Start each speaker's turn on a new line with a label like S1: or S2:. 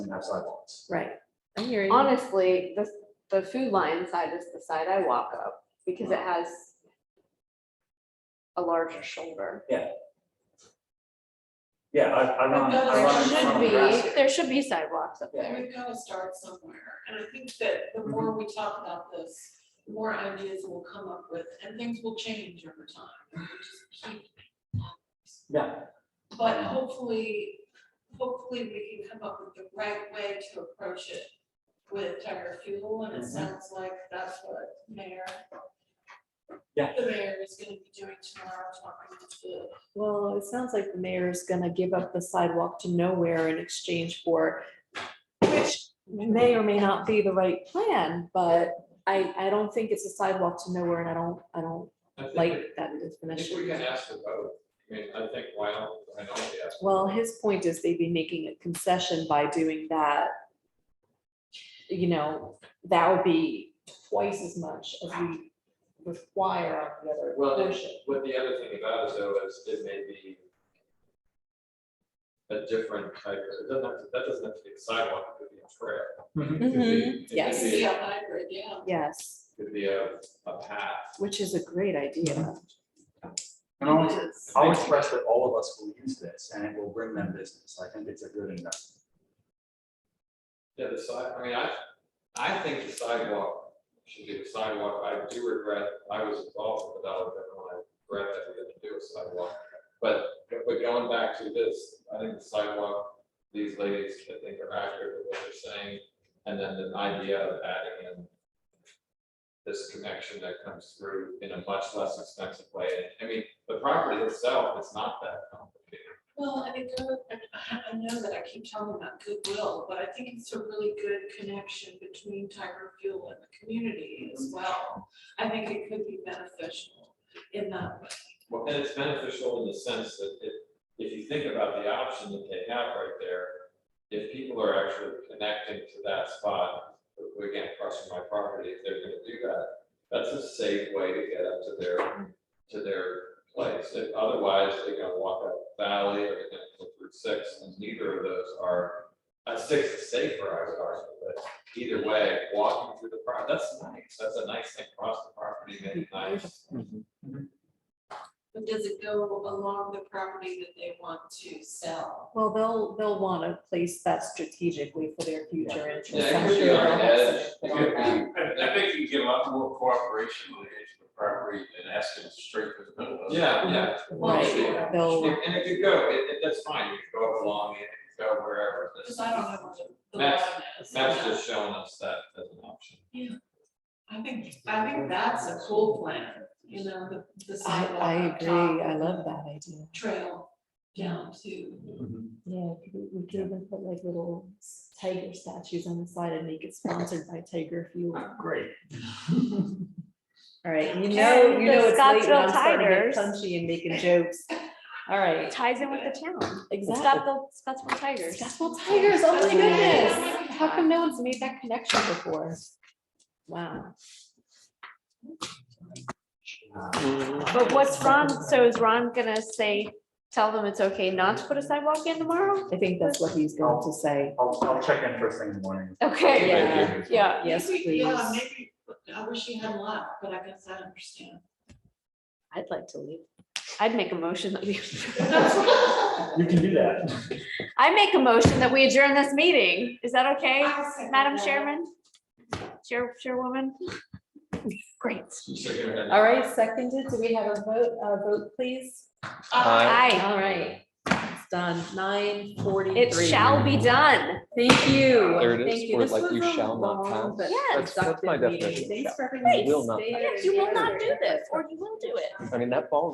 S1: doesn't have sidewalks.
S2: right. I hear you.
S3: Honestly, the, the food line side is the side I walk up because it has a larger shoulder.
S1: Yeah, I, I run,
S4: But
S1: I
S4: there
S1: run in
S4: should
S1: front of
S4: be-
S1: the grass. here.
S3: There should be sidewalks up
S1: Yeah.
S3: there.
S4: We've got to start somewhere, and I think that
S1: Mhm.
S4: the more we talk about this, the more ideas we'll come up with, and things will change over time. and we just keep-
S1: Yeah,
S4: But hopefully, hopefully we can come up with the right way to approach it with tire fuel, and it
S1: Mhm.
S4: sounds like that's what mayor.
S1: Yeah.
S4: The mayor is gonna be doing tomorrow, talking to
S2: Well, it sounds like the mayor is gonna give up the sidewalk to nowhere in exchange for, which may or may not be the right plan, but I, I don't think it's a sidewalk to nowhere and I don't, I don't
S5: I think
S2: like
S5: we-
S2: that
S5: I think we
S2: definition.
S5: can ask about, I mean, I think, why not, I know we asked.
S2: Well, his point is they'd be making a concession by doing that. You know, that would be twice as much as we require on the other
S5: Well, and
S2: portion.
S5: what the other thing about is though, is it may be a different type, of- it doesn't have to, that doesn't have to be a sidewalk, it could be a trail. It could be- it could
S2: Mm-hmm. yes.
S4: the,
S5: be-
S4: yeah, hybrid, yeah.
S2: Yes,
S5: Could be a, a path.
S2: which is a great idea.
S1: and I'll,
S2: It is.
S1: I'll express that all of us will use this and it will bring them business. I think it's a good investment.
S5: Yeah, the side, I mean, I, I think the sidewalk should be the sidewalk. I do regret, I was involved with the Dollar General, and I regret that we didn't do a sidewalk. But, but going back to this, I think the sidewalk, these ladies, I think are accurate with what they're saying. And then the idea of adding in this connection that comes through in a much less expensive way. I mean, the property itself is not that complicated.
S4: Well, and it goes, and I I know that I keep talking about goodwill, but I think it's a really good connection between Tiger Fuel and the community as well. I think it could be beneficial in that way.
S5: Well, and it's beneficial in the sense that if, if you think about the option that they have right there, if people are actually connecting to that spot, again, across from my property, if they're gonna do that, that's a safe way to get up to their, to their place. If otherwise, they're gonna walk up Valley or they're gonna go through six, and neither of those are, uh, six is safer, I would argue, but either way, walking through the park, that's nice. That's a nice thing across the property, maybe nice.
S4: But does it go along the property that they want to sell?
S2: Well, they'll, they'll want a place that's strategically for their future interests.
S5: Yeah,
S2: I'm
S5: it could be
S2: sure they'll
S5: on an
S2: have
S5: edge.
S2: something
S5: It
S2: on
S5: could
S2: that.
S5: be,
S6: I I think you get a lot more cooperation with the edge of the property than asking straight for the middle of it.
S5: yeah, yeah.
S4: Well,
S2: Right, they'll,
S5: And it could go, it, it, that's fine, you could go along, it could go wherever.
S4: Because I don't know what the- the.
S5: Max-
S4: line is.
S5: Matt's just showing us that as an option.
S4: I think, I think that's a cool plan, you know, the, the
S2: I,
S4: sidewalk.
S2: I
S4: up
S2: agree,
S4: top
S2: I
S4: and
S2: love
S4: the
S2: that idea.
S4: Trail down to.
S2: Yeah, it could be- we could even put like little tiger statues on the side and make it sponsored by Tiger Fuel.
S1: Great.
S2: All right, you
S4: Okay,
S2: know, you
S4: the
S2: know, it's late when
S3: Scottsdale
S2: I'm starting to get
S3: Tigers.
S2: punchy and making jokes. All right,
S3: Ties in with the town.
S2: exactly.
S3: Scottsville, Scottsville Tigers.
S2: Scottsdale Tigers, oh my
S3: Oh, yeah.
S2: goodness, how come no one's made that connection before? Wow.
S1: Uh,
S5: Mm-hmm.
S3: But what's Ron, so is Ron gonna say, tell them it's okay not to put a sidewalk in tomorrow?
S2: I think that's what he's going to say.
S1: I'll, I'll check in first thing in the morning.
S3: Okay.
S2: Yeah.
S3: Yeah.
S2: Yes,
S4: Maybe- Yeah,
S2: please.
S4: maybe, I wish he had left, but I guess I understand.
S3: I'd like to leave. I'd make a motion that we,
S4: I
S1: You can do that.
S3: I make a motion that we adjourn this meeting. Is that okay,
S4: second
S3: Madam
S4: that.
S3: Chairman? Chair, Chairwoman? Great.
S2: All right, seconded, do we have a vote, a vote, please?
S3: Aye.
S2: All right, it's done, nine forty-three.
S3: It shall be done.
S2: Thank you.
S7: There it is,
S2: Thank you.
S7: or
S2: This
S7: like
S2: was
S7: you
S2: a
S7: shall not
S2: long
S7: pass.
S2: but
S3: Yes.
S7: That's- that's my
S2: productive meeting.
S7: definition of shall.
S2: Thanks for everyone.
S7: Will not
S2: Stay
S3: Yes, you will not do
S2: together.
S3: this, or you will do it.
S7: I mean, that ball